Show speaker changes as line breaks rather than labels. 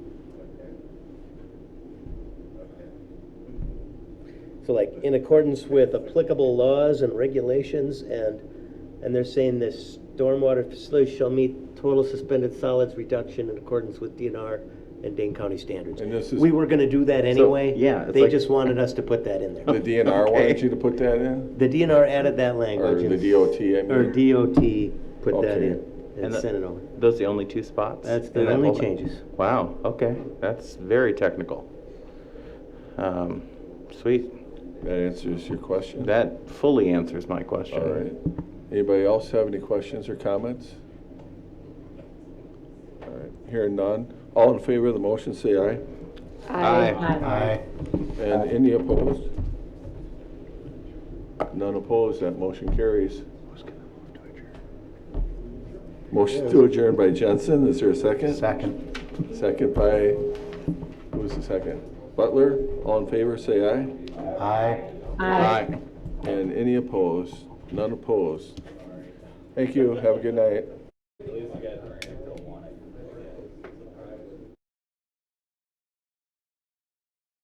So like, in accordance with applicable laws and regulations, and, and they're saying this stormwater facility shall meet total suspended solids reduction in accordance with DNR and Dane County standards.
And this is-
We were gonna do that anyway.
yeah, it's
They
like-
just wanted us to put that in there.
The DNR wanted
Okay.
you to put that in?
The DNR added that language.
Or
and-
the DOT, I mean?
Or DOT put that
Okay.
in and
And the-
sent it over.
Those are the only two spots?
That's the
in that
only
whole-
changes.
Wow, okay, that's very technical. Um, Sweet,
That answers your question?
that fully answers my question.
All right. Anybody else have any questions or comments? All right, hearing none. All in favor of the motion, say aye.
Aye.
And any opposed? None opposed, that motion carries. Motion to adjourn by Jensen, is there a second?
Second.
Second by, who's the second? Butler, all in favor, say aye.
Aye.
Aye.
And any opposed? None opposed? Thank you, have a good night.